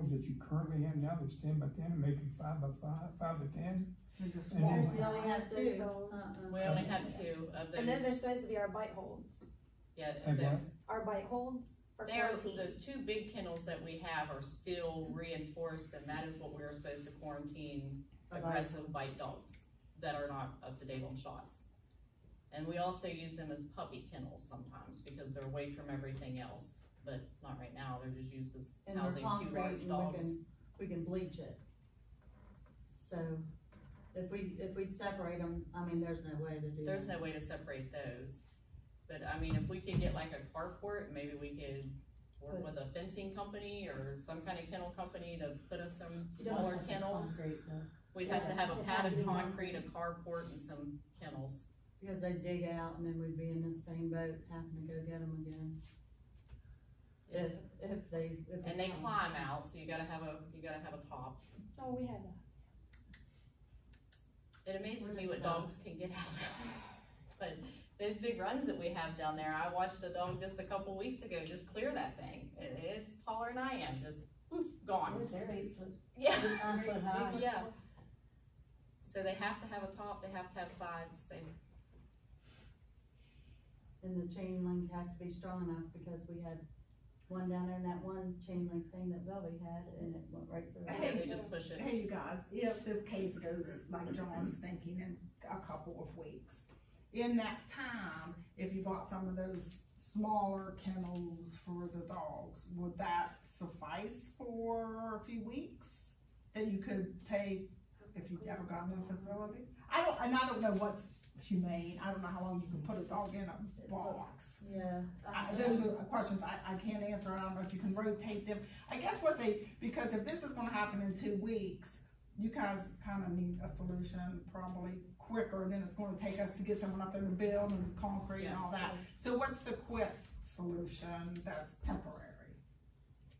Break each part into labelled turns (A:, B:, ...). A: rooms that you currently have now that's ten by ten, and make them five by five, five by ten.
B: They're just
A: And then-
B: small.
C: We only have
D: Three
C: two.
D: souls.
C: Uh-uh.
E: We only have two of
D: And then
E: those,
D: there's supposed to be our bite holds,
E: yeah,
A: Have
E: they're,
D: our bite holds for
E: they're,
D: quarantine.
E: the two big kennels that we have are still reinforced, and that is what we're supposed to quarantine aggressive bite dogs that are not up to date on shots. And we also use them as puppy kennels sometimes, because they're away from everything else, but not right now, they're just used as
C: And they're
E: housing two
C: concrete
E: large
C: and we
E: dogs.
C: can, we can bleach it. So if we, if we separate them, I mean, there's no way to do
E: There's
C: that.
E: no way to separate those, but I mean, if we could get like a carport, maybe we could work with a fencing company or some kind of kennel company to put us some
C: You don't
E: smaller
C: have the
E: kennels.
C: concrete, though,
E: We'd have to have a
D: It'd have to
E: padded
D: be one.
E: concrete, a carport and some kennels.
C: Because they dig out and then we'd be in the same boat having to go get them again. If, if they, if.
E: And they climb out, so you gotta have a, you gotta have a top.
D: Oh, we had that.
E: It amazes
C: We're
E: me
C: just
E: what
C: not-
E: dogs can get out of. But those big runs that we have down there, I watched a dog just a couple weeks ago just clear that thing. It, it's taller than I am, just poof, gone.
C: They're eight foot,
E: Yeah,
C: nine foot high.
E: yeah. So they have to have a top, they have to have sides, they,
C: And the chain link has to be strong enough because we had one down there and that one chain link thing that Bobby had and it went right through.
B: Hey.
E: they just push it.
B: Hey, you guys, if this case goes like John's thinking in a couple of weeks, in that time, if you bought some of those smaller kennels for the dogs, would that suffice for a few weeks? That you could take if you've ever gotten a facility? I don't, and I don't know what's humane, I don't know how long you can put a dog in a box.
C: Yeah.
B: I- Those are questions I, I can't answer, I don't know if you can rotate them. I guess what they, because if this is gonna happen in two weeks, you guys kinda need a solution probably quicker than it's gonna take us to get someone up there to build and concrete and all that. So what's the quick solution that's temporary?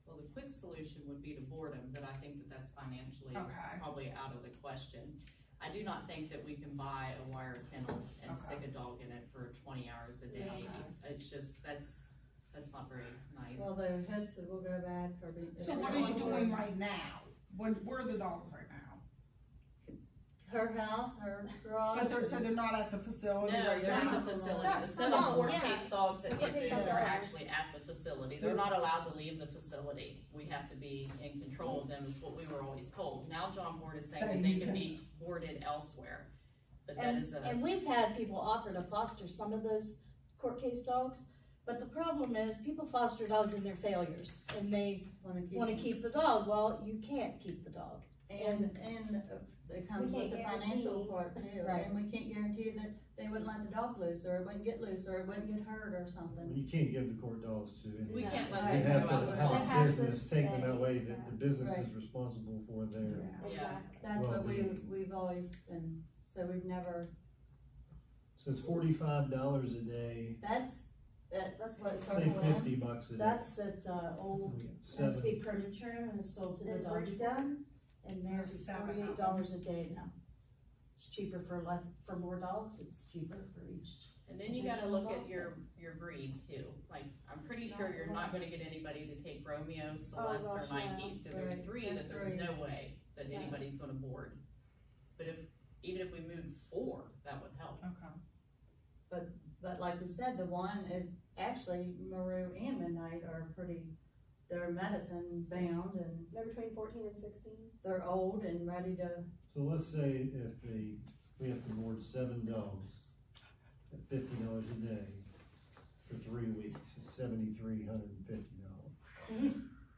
E: Well, the quick solution would be to board them, but I think that that's financially
B: Okay,
E: probably out of the question. I do not think that we can buy a wire kennel and
B: Okay.
E: stick a dog in it for twenty hours a day.
B: Okay.
E: It's just, that's, that's not very nice.
C: Well, their hips will go bad for being.
B: so what are you doing right now? Where, where are the dogs right now?
C: Her house, her garage.
B: But they're, so they're not at the facility?
E: No,
B: right
E: they're at
B: now?
E: the facility.
D: Some-
E: The
D: some
E: seven
D: dogs,
E: court
D: yeah.
E: case dogs that
D: Court
E: get
D: case
E: there
D: dogs
E: are
D: are-
E: actually at the facility. They're not allowed to leave the facility. We have to be in control of them is what we were always told. Now John Board is saying that
B: Saying
E: they
B: you
E: can
B: can-
E: be boarded elsewhere. But that is a,
F: And we've had people offer to foster some of those court case dogs, but the problem is people foster dogs in their failures and they
C: Wanna keep.
F: wanna keep the dog. Well, you can't keep the dog.
C: And, and uh, it comes
D: can't
C: with the financial
D: guarantee.
C: part too,
F: Right.
C: and we can't guarantee that they wouldn't let the dog loose, or it wouldn't get loose, or it wouldn't get hurt or something.
G: You can't give the court dogs to anyone.
E: we can't
G: You
E: let
G: have
E: them go
G: to
E: out.
G: have a
D: They have to
G: business take them
D: stay.
G: away, that the business
C: Right.
G: is responsible for their,
E: Yeah.
C: That's
G: Well,
C: what we,
G: we-
C: we've always been, so we've never,
G: so it's forty-five dollars a day,
C: that's, that, that's what
G: say
C: Circle M.
G: fifty bucks a day.
F: That's at, uh, old, used to
G: Seven,
F: be furniture and it's sold to the
D: And
F: dog den. And there's
B: Seven.
F: forty-eight dollars a day now. It's cheaper for less, for more dogs, it's cheaper for each.
E: And then you gotta look at your, your breed too. Like, I'm pretty sure you're not gonna get anybody to take Romeo, Celeste, or
D: gosh, no.
E: Nike. So there's
C: Right.
E: three
C: There's
E: that there's
C: three.
E: no way that
D: Yeah.
E: anybody's gonna board. But if, even if we moved four, that would help.
B: Okay.
C: But like we said, the one is actually Maru and Midnight are pretty, they're medicine bound and
D: They're between fourteen and sixteen.
C: they're old and ready to,
G: so let's say if the, we have to board seven dogs at fifty dollars a day for three weeks, it's seventy-three hundred and fifty dollars.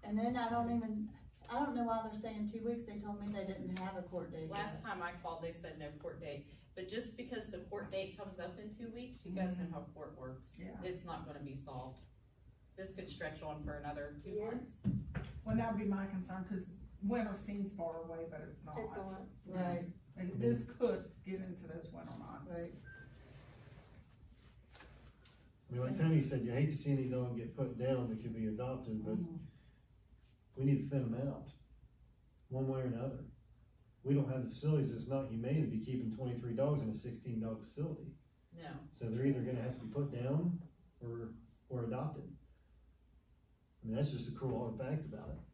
C: and then I don't even, I don't know why they're saying two weeks, they told me they didn't have a court date. yet.
E: Last time I called, they said no court date, but just because the court date comes up in two weeks, you guys know how court works.
B: Yeah.
E: It's not gonna be solved. This could stretch on for another two
D: Yeah.
E: months.
B: Well, that would be my concern, cause winter seems far away, but it's not.
D: It's not.
C: Right,
B: Like, this could get into those winter months.
C: right.
G: I mean, like Tony said, you hate to see any dog get put down that could be adopted, but we need to thin them out, one way or another. We don't have the facilities, it's not humane to be keeping twenty-three dogs in a sixteen dog facility.
E: No,
G: So they're either gonna have to be put down or, or adopted. I mean, that's just the cruel hard fact about it.